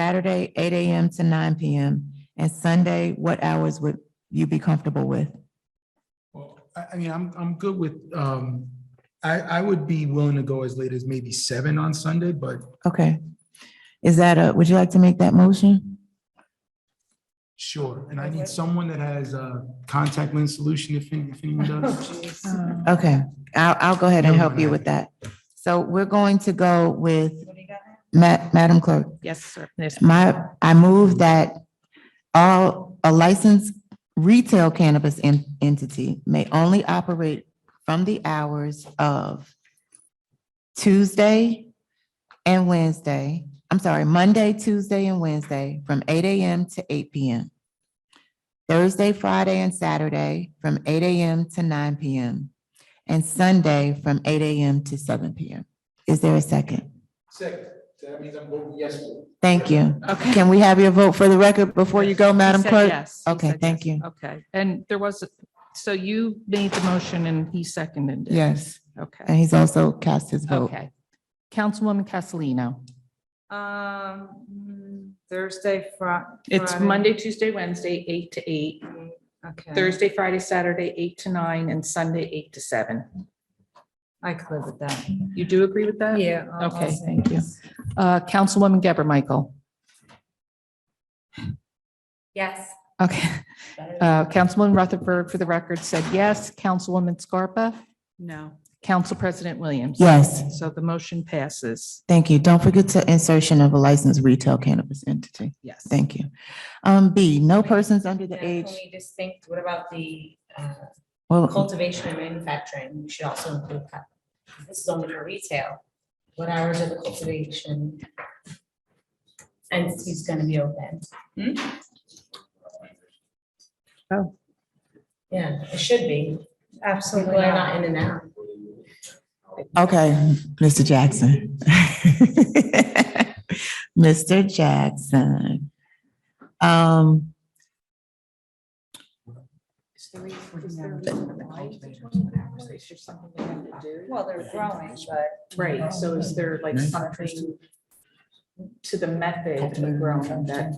Saturday, eight AM to nine PM, and Sunday, what hours would you be comfortable with? Well, I, I mean, I'm, I'm good with, um, I, I would be willing to go as late as maybe seven on Sunday, but Okay. Is that a, would you like to make that motion? sure. And I need someone that has a contact lens solution if, any- if anyone does. Okay, I'll, I'll go ahead and help you with that. So we're going to go with, Ma- Madam Clerk, Yes, sir. There's- my, I move that all, a licensed retail cannabis en- entity may only operate from the hours of Tuesday and Wednesday, I'm sorry, Monday, Tuesday, and Wednesday from eight AM to eight PM. Thursday, Friday, and Saturday from eight AM to nine PM, and Sunday from eight AM to seven PM. Is there a second? Second, that means I'm voting yes. Thank you. Okay. Can we have your vote for the record before you go, Madam He said Clerk? yes. He Okay, said thank yes. you. Okay, and there was, so you made the motion and he seconded it? Yes, and Okay, he's also cast his vote. okay. Councilwoman Castellino, Um, Thursday, Fri- it's Friday. Monday, Tuesday, Wednesday, eight to eight, Okay, Thursday, Friday, Saturday, eight to nine, and Sunday, eight to seven. I could with that. You do agree with that? Yeah. I'll- I'll Okay, say thank you. yes. Uh, Councilwoman Geber Michael, Yes. okay. Uh, Councilwoman Rutherford, for the record, said yes. Councilwoman Scarpa? No. Council President Williams? Yes. So the motion passes. Thank you. Don't forget to insertion of a licensed retail cannabis entity. Yes. Thank you. Um, B, no persons under the age, Can we just think, what about the uh, well, cultivation and manufacturing? We should also include that. This is only for retail. What hours are the cultivation? And he's gonna be open. Oh. Yeah, it should be. People Absolutely are not. not in and out. okay, Mr. Jackson. Mr. Jackson. Um, Well, they're growing, but Right, so is there like something to the method of growing that?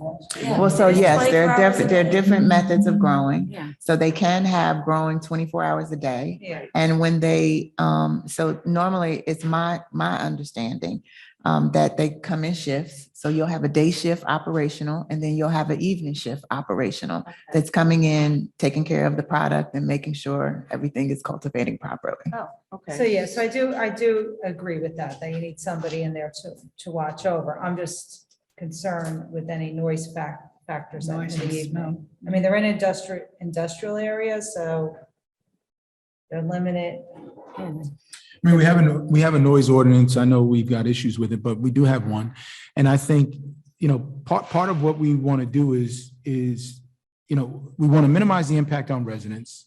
well, so yes, there are different, there are different methods Mm-hmm. of growing. Yeah. So they can have growing twenty-four hours a day. yeah, And when they, um, so normally it's my, my understanding, um, that they come in shifts. So you'll have a day shift operational and then you'll have an evening shift operational that's coming in, taking care of the product and making sure everything is cultivating properly. so yeah, so I do, I do agree with that, that you need somebody in there to, to watch over. I'm just concerned with any noise fac- factors in the evening. I mean, they're in industrial, industrial areas, so they're limited. I mean, we have a, we have a noise ordinance. I know we've got issues with it, but we do have one. And I think, you know, part, part of what we want to do is, is, you know, we want to minimize the impact on residents.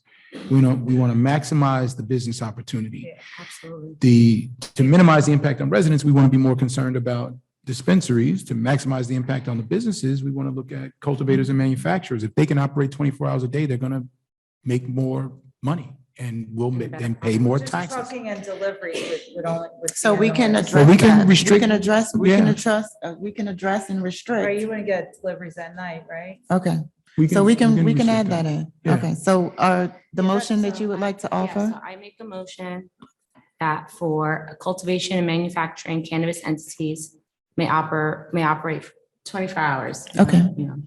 You know, we want to maximize the business opportunity. Absolutely. The, to minimize the impact on residents, we want to be more concerned about dispensaries. To maximize the impact on the businesses, we want to look at cultivators and manufacturers. If they can operate 24 hours a day, they're going to make more money and we will then pay more Just taxes. trucking and deliveries would, would only. would So be we annoying. can Well, address we can that. We restrict- can address, we can Yeah. address, uh, we can address and Right, restrict. you wouldn't get deliveries at night, right? Okay, so we can, we can restrict add that in. Yeah. Okay, so, uh, the Yeah, motion that so you would I- like to yeah, offer? so I make a motion that for a cultivation and manufacturing cannabis entities may oper, may operate twenty-four hours. Okay. You know,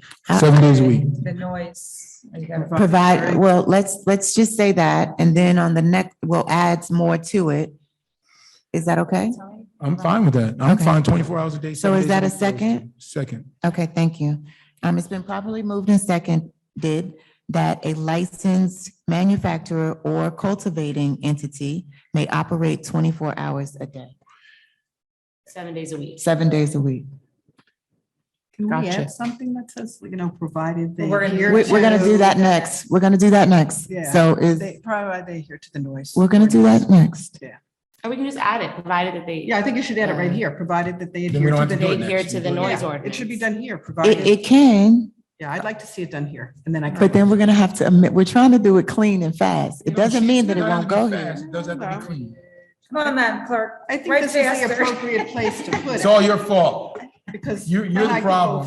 Seven days a week. The noise. you gotta- Provide, well, let's, let's just say that, and then on the next, we'll add more to it. Is that okay? I'm fine with that. I'm Okay. fine, twenty-four hours a day. So seven is days that a week, I was second? too. Second. Okay, thank you. Um, it's been properly moved and seconded that a licensed manufacturer or cultivating entity may operate twenty-four hours a day, Seven days a week. seven days a week. Can we Gotcha. add something that says, you know, provided they. We're gonna- adhere We're, we're gonna do to- that next. We're gonna do that next. Yeah. So is, They, provided they adhere to the noise. we're gonna do that next. Or we can just add it, provided that they. Yeah, I think you should add it right here, provided that they Then we don't adhere to have the. to do it Um, noise. adhere next. to the Yeah. noise Yeah, It ordinance. should be done here, It, provided. it can, Yeah, I'd like to see it done here and then I. but then we're gonna have to admit, we're trying to do it clean and fast. It doesn't mean that it Doesn't have won't to go be here. fast. It Does have to be clean. Come on, Madam Clerk. I think Right this is the faster. appropriate place to put It's it. all your fault. because. You, I you're the like to go problem.